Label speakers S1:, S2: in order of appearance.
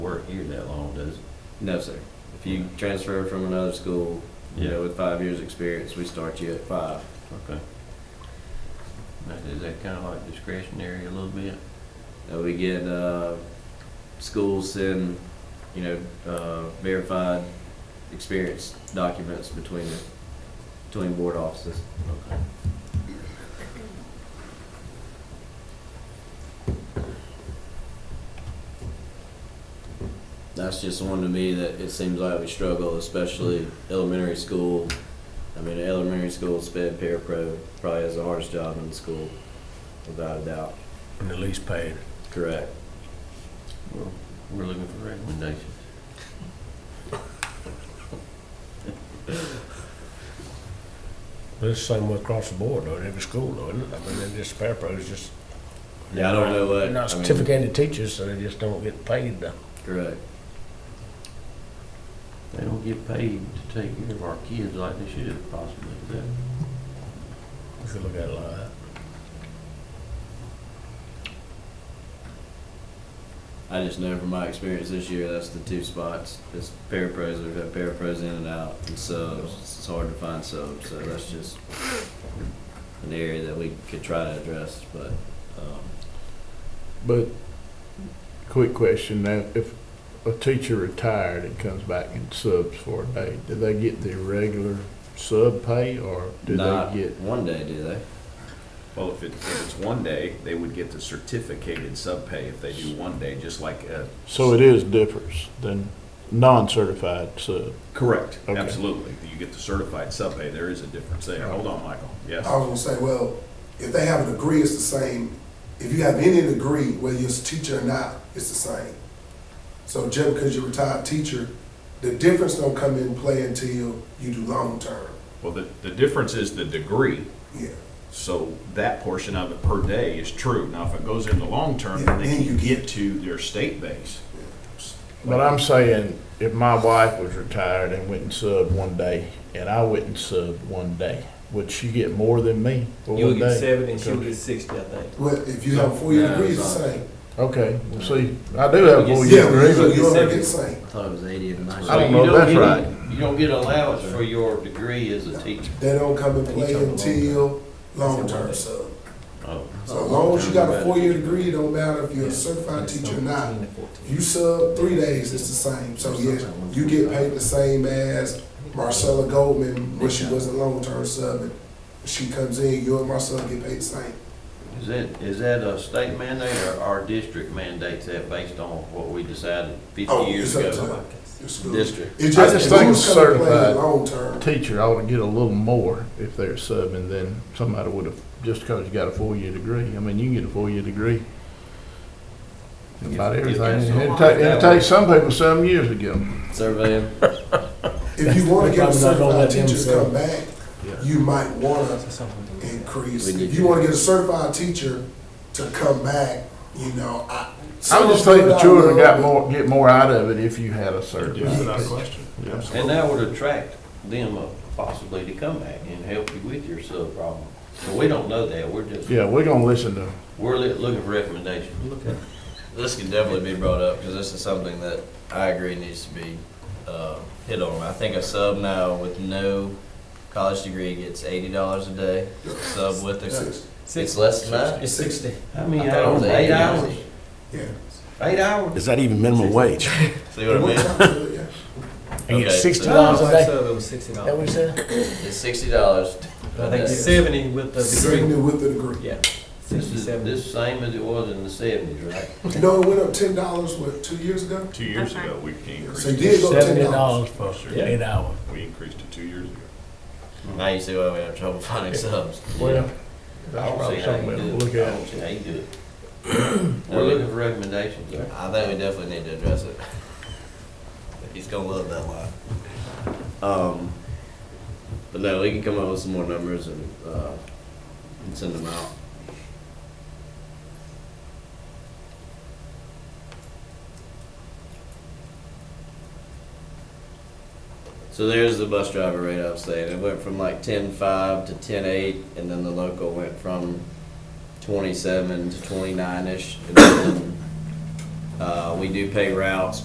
S1: work here that long, does it?
S2: No, sir. If you transfer from another school, you know, with five years' experience, we start you at five.
S1: Okay. Now, Is that kind of like discretionary a little bit?
S2: Uh, we get uh, schools send, you know, uh, verified experience documents between the, between board offices.
S1: Okay.
S2: That's just one to me that it seems like we struggle, especially elementary school. I mean, elementary school sped parapro probably has the hardest job in the school, without a doubt.
S3: and the least paid.
S2: Correct.
S1: Well, we're looking for recommendations.
S3: But it's the same way across the board, though, at every school, though, isn't it? I mean, they're just parapros, just.
S2: Yeah, I don't know what-
S3: They're Not
S2: I mean-
S3: certificated teachers, so they just don't get paid the
S2: Correct.
S1: They don't get paid to take care of our kids like they should possibly, is that?
S3: If you look at it like that.
S2: I just know from my experience this year, that's the two spots. It's parapros, we've had parapros in and out, and subs. It's hard to find subs, so that's just an area that we could try to address, but, um,
S4: But, quick question now, if a teacher retired and comes back and subs for a day, do they get the regular sub pay or do
S2: not
S4: they get?
S2: one day, do they?
S5: Well, if it, if it's one day, they would get the certificated sub pay if they do one day, just like, uh.
S4: So it is differs than non-certified sub.
S5: Correct,
S4: Okay.
S5: absolutely. You get the certified sub pay, there is a difference there. Hold on, Michael, yes.
S6: I was gonna say, well, if they have a degree, it's the same. If you have any degree, whether you're a teacher or not, it's the same. So just because you're a retired teacher, the difference don't come in play until you do long term.
S5: Well, the, the difference is the degree,
S6: Yeah.
S5: so that portion of it per day is true. Now, if it goes into long term, then
S6: Yeah,
S5: they can
S6: then you
S5: get to their state base.
S4: But I'm saying, if my wife was retired and went and subbed one day, and I went and subbed one day, would she get more than me for
S7: You
S4: one
S7: would get
S4: day?
S7: seven and she would get sixty, I think.
S6: Well, if you have a four-year
S2: No,
S6: degree, it's the
S2: it's not.
S6: same.
S4: Okay, well, see, I do have a
S2: You get
S4: four-year
S6: Yeah, well,
S4: degree,
S6: you
S4: but
S6: you already
S7: seven.
S6: get the same.
S2: I thought it was eighty and ninety.
S4: I don't
S1: So
S4: know
S1: you
S4: if that's
S1: get
S4: right.
S1: any- You don't get allowance for your degree as a teacher.
S6: They don't come in
S7: And you
S6: play
S7: talk about
S6: until long
S7: It's a one-day.
S6: term sub.
S1: Oh,
S6: So as long as you got a four-year degree, it don't matter if you're a certified teacher or not. You sub three days, it's the same. So yes, you get paid the same as Marcella Goldman when she was a long-term sub. And She comes in, you and Marcella get paid the same.
S1: is that, is that a state mandate or our district mandates that based on what we decided
S6: Oh,
S1: fifty years
S6: it's up to
S1: ago?
S6: your school. It
S1: District.
S6: just,
S4: I just think
S6: who's
S4: it's
S6: coming to play
S4: certified.
S6: long-term?
S4: teacher ought to get a little more if they're subbing than somebody would have, just because you got a four-year degree. I mean, you can get a four-year degree in about
S1: If- if
S4: everything.
S1: that's
S4: And
S1: all-
S4: It ta- and it takes some people some years to get 'em.
S2: Surveying,
S6: If you wanna
S3: Probably not
S6: get a
S3: gonna
S6: certified
S3: let them
S6: teacher to
S3: sub.
S6: come back, you might wanna increase.
S2: We need
S6: If
S2: to-
S6: you wanna get a certified teacher to come back, you know, I.
S4: I would just think the
S6: I
S4: children
S6: know,
S4: got
S6: but-
S4: more, get more out of it if you had a
S5: Yeah,
S4: certified.
S5: without question. Absolutely.
S1: And that would attract them uh, possibly to come back and help you with your sub problem. So we don't know that, we're just,
S4: Yeah, we're gonna listen to,
S1: we're li- looking for recommendations.
S2: this could definitely be brought up, because this is something that I agree needs to be, uh, hit on. I think a sub now with no college degree gets eighty dollars a day, sub with a,
S6: Six,
S2: it's less than that?
S7: It's sixty.
S1: How many
S2: I thought it
S1: hours,
S2: was
S1: eight
S2: 80
S1: hours,
S6: yeah.
S1: eight hours?
S3: Is that even minimum wage?
S2: See what I mean?
S6: Yeah.
S3: And
S2: Okay,
S3: get sixty
S2: so-
S7: Oh,
S3: dollars a day?
S7: It was sixty
S3: That we
S7: dollars.
S3: said?
S2: It's sixty dollars.
S7: I think seventy with the
S6: Sitting
S7: degree.
S6: there with the degree.
S7: Yeah.
S1: This is,
S7: Sixty-seven.
S1: this same as it was in the seventies, right?
S6: You know, it went up ten dollars, what, two years ago?
S5: Two years ago, we increased,
S6: So you
S5: it.
S6: did go ten
S3: Seventy
S6: dollars.
S3: dollars for
S5: Yeah.
S3: eight hours.
S5: we increased it two years ago.
S2: Now you see why we have trouble finding subs.
S4: well,
S1: I
S4: that's
S1: don't see
S4: probably
S1: how you
S4: something we'll
S1: do
S4: look
S1: it. I
S4: at.
S1: don't see how you do it. We're looking for recommendations, sir.
S2: I think we definitely need to address it. He's gonna love that line. Um, but no, we can come up with some more numbers and, uh, and send them out. So there's the bus driver rate I was saying. It went from like ten five to ten eight, and then the local went from twenty seven to twenty nine ish. And then, uh, we do pay routes,